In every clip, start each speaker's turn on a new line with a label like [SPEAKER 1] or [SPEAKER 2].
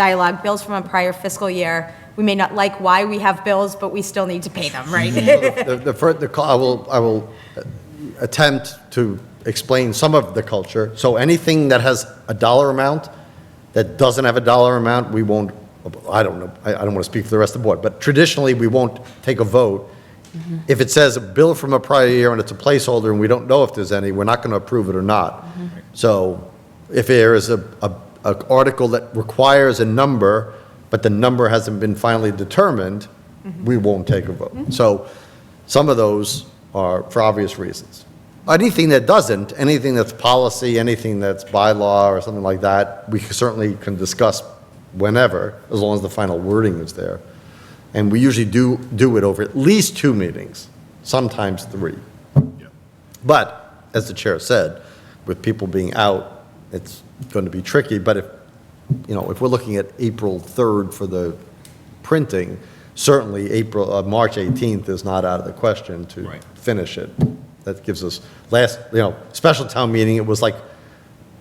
[SPEAKER 1] dialogue, bills from a prior fiscal year. We may not like why we have bills, but we still need to pay them, right?
[SPEAKER 2] The, the, fir- the, cul- I will, I will attempt to explain some of the culture. So anything that has a dollar amount, that doesn't have a dollar amount, we won't, I don't know, I, I don't want to speak for the rest of the board, but traditionally, we won't take a vote. If it says a bill from a prior year and it's a placeholder and we don't know if there's any, we're not going to approve it or not. So if there is a, a, an article that requires a number, but the number hasn't been finally determined, we won't take a vote. So some of those are for obvious reasons. Anything that doesn't, anything that's policy, anything that's bylaw or something like that, we certainly can discuss whenever, as long as the final wording is there. And we usually do, do it over at least two meetings, sometimes three. But, as the chair said, with people being out, it's going to be tricky, but if, you know, if we're looking at April 3rd for the printing, certainly April, uh, March 18th is not out of the question to
[SPEAKER 3] Right.
[SPEAKER 2] finish it. That gives us, last, you know, special town meeting, it was like,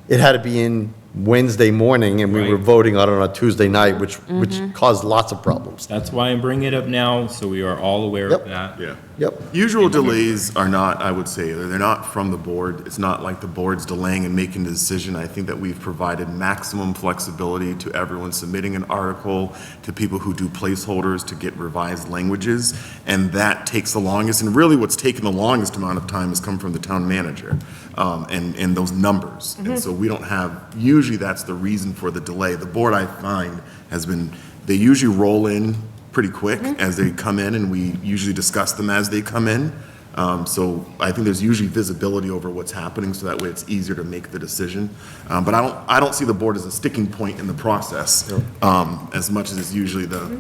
[SPEAKER 2] it had to be in Wednesday morning, and we were
[SPEAKER 3] Right.
[SPEAKER 2] voting on it on a Tuesday night, which, which caused lots of problems.
[SPEAKER 3] That's why I'm bringing it up now, so we are all aware
[SPEAKER 2] Yep.
[SPEAKER 3] of that.
[SPEAKER 4] Yeah.
[SPEAKER 2] Yep.
[SPEAKER 4] Usual delays are not, I would say, they're not from the board. It's not like the board's delaying and making the decision. I think that we've provided maximum flexibility to everyone submitting an article, to people who do placeholders to get revised languages, and that takes the longest. And really, what's taken the longest amount of time has come from the town manager um, and, and those numbers. And so we don't have, usually that's the reason for the delay. The board, I find, has been, they usually roll in pretty quick as they come in, and we usually discuss them as they come in. Um, So I think there's usually visibility over what's happening, so that way it's easier to make the decision. Um, But I don't, I don't see the board as a sticking point in the process, um, as much as it's usually the,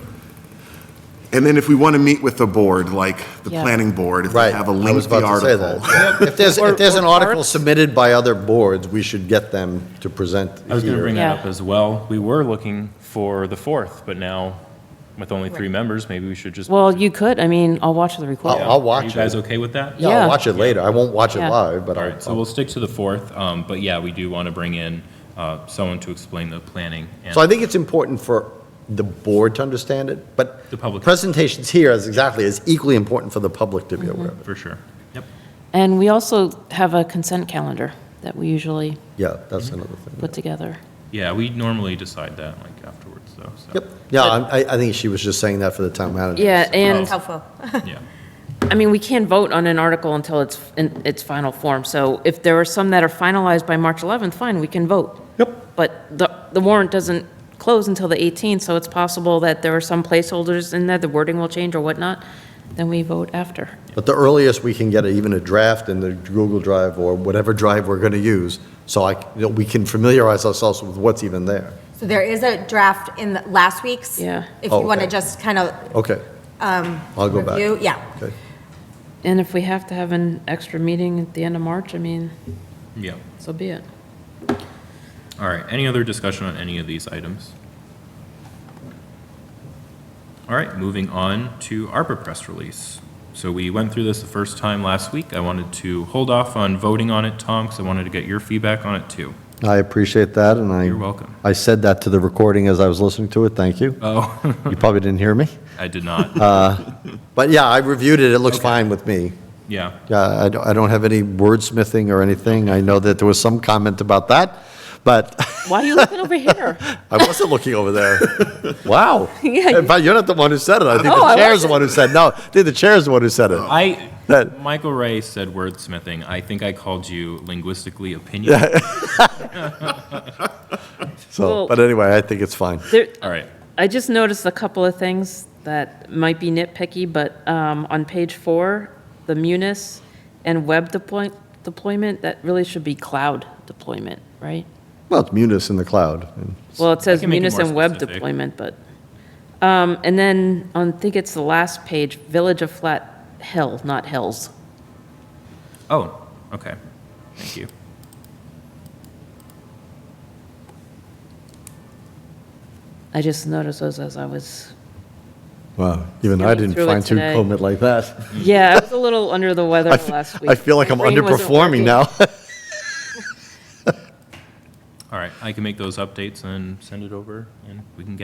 [SPEAKER 4] and then if we want to meet with the board, like the
[SPEAKER 5] Yeah.
[SPEAKER 4] planning board, if they
[SPEAKER 2] Right.
[SPEAKER 4] have a
[SPEAKER 2] I was
[SPEAKER 4] lengthy
[SPEAKER 2] about to say that.
[SPEAKER 4] article.
[SPEAKER 2] If there's, if there's an
[SPEAKER 5] Or- or
[SPEAKER 2] article
[SPEAKER 5] parts.
[SPEAKER 2] submitted by other boards, we should get them to present
[SPEAKER 3] I was going to bring
[SPEAKER 2] here.
[SPEAKER 3] that
[SPEAKER 5] Yeah.
[SPEAKER 3] up as well. We were looking for the fourth, but now with only three members, maybe we should just.
[SPEAKER 5] Well, you could, I mean, I'll watch the recording.
[SPEAKER 2] I'll
[SPEAKER 3] Are you
[SPEAKER 2] watch
[SPEAKER 3] guys
[SPEAKER 2] it.
[SPEAKER 3] okay with that?
[SPEAKER 2] Yeah,
[SPEAKER 5] Yeah.
[SPEAKER 2] I'll watch it later. I won't watch it
[SPEAKER 5] Yeah.
[SPEAKER 2] live, but
[SPEAKER 3] All right, so
[SPEAKER 2] I'll,
[SPEAKER 3] we'll stick to the fourth, um, but yeah, we do want to bring in, uh, someone to explain the planning. and-
[SPEAKER 2] so I think it's important for the board to understand it, but
[SPEAKER 3] The public.
[SPEAKER 2] presentations here is exactly, is equally important for the public to be aware of it.
[SPEAKER 3] For sure. Yep.
[SPEAKER 5] And we also have a consent calendar that we usually
[SPEAKER 2] Yeah, that's another thing.
[SPEAKER 5] put together.
[SPEAKER 3] Yeah, we normally decide that like afterwards though, so.
[SPEAKER 2] Yep, yeah, I, I- I think she was just saying that for the town manager.
[SPEAKER 5] Yeah, and,
[SPEAKER 1] Helpful.
[SPEAKER 3] Yeah,
[SPEAKER 2] Oh.
[SPEAKER 5] I mean, we can't vote on an article until it's in its final form. So if there are some that are finalized by March 11th, fine, we can vote.
[SPEAKER 2] Yep.
[SPEAKER 5] But the, the warrant doesn't close until the 18th, so it's possible that there are some placeholders in there, the wording will change or whatnot, then we vote after.
[SPEAKER 2] But the earliest we can get even a draft in the Google Drive or whatever drive we're going to use, so I, you know, we can familiarize ourselves with what's even there.
[SPEAKER 1] So there is a draft in the- last week's.
[SPEAKER 5] Yeah.
[SPEAKER 1] If
[SPEAKER 2] Oh,
[SPEAKER 1] you want to
[SPEAKER 2] okay.
[SPEAKER 1] just kind of
[SPEAKER 2] Okay. I'll go back.
[SPEAKER 1] review, yeah.
[SPEAKER 2] Okay.
[SPEAKER 5] And if we have to have an extra meeting at the end of March, I mean,
[SPEAKER 3] yeah.
[SPEAKER 5] so be it.
[SPEAKER 3] All right, any other discussion on any of these items? All right, moving on to ARPA press release. So we went through this the first time last week. I wanted to hold off on voting on it, Tom, because I wanted to get your feedback on it too.
[SPEAKER 2] I appreciate that, and I.
[SPEAKER 3] You're welcome.
[SPEAKER 2] I said that to the recording as I was listening to it, thank you.
[SPEAKER 3] Oh, Uh,
[SPEAKER 2] You probably didn't hear me.
[SPEAKER 3] I did not.
[SPEAKER 2] But yeah, I reviewed it, it looks
[SPEAKER 3] Okay.
[SPEAKER 2] fine with me.
[SPEAKER 3] Yeah,
[SPEAKER 2] Yeah, I don't, I don't have any wordsmithing or anything, I know that there was some comment about that, but
[SPEAKER 5] Why are you looking over here?
[SPEAKER 2] I wasn't looking over there. Wow.
[SPEAKER 5] Yeah,
[SPEAKER 2] In fact, you're not the one who said it, I think
[SPEAKER 5] Oh,
[SPEAKER 2] the
[SPEAKER 5] I
[SPEAKER 2] chair's the one who said, no, I think the chair's the one who said it.
[SPEAKER 3] I,
[SPEAKER 2] That-
[SPEAKER 3] Michael Ray said wordsmithing. I think I called you linguistically opinion.
[SPEAKER 2] So,
[SPEAKER 5] Well-
[SPEAKER 2] but anyway, I think it's fine.
[SPEAKER 5] There,
[SPEAKER 3] All right,
[SPEAKER 5] I just noticed a couple of things that might be nitpicky, but um, on page four, the Munis and web deploy, deployment, that really should be cloud deployment, right?
[SPEAKER 2] Well, it's Munis in the cloud. and-
[SPEAKER 5] Well, it says
[SPEAKER 3] can make it
[SPEAKER 5] Munis
[SPEAKER 3] more
[SPEAKER 5] and web
[SPEAKER 3] specific.
[SPEAKER 5] deployment, but, um, and then on, I think it's the last page, Village of Flat Hill, not Hills.
[SPEAKER 3] oh, okay, thank you.
[SPEAKER 5] I just noticed those as I was,
[SPEAKER 2] Wow, even I
[SPEAKER 5] Skimming
[SPEAKER 2] didn't
[SPEAKER 5] through it
[SPEAKER 2] fine tune
[SPEAKER 5] today.
[SPEAKER 2] comb it like that.
[SPEAKER 5] yeah, I was a little under the weather
[SPEAKER 2] I f-
[SPEAKER 5] last week.
[SPEAKER 2] I feel like
[SPEAKER 5] My
[SPEAKER 2] I'm
[SPEAKER 5] brain wasn't
[SPEAKER 2] underperforming
[SPEAKER 5] working.
[SPEAKER 2] now.
[SPEAKER 3] All right, I can make those updates and send it over, and we can get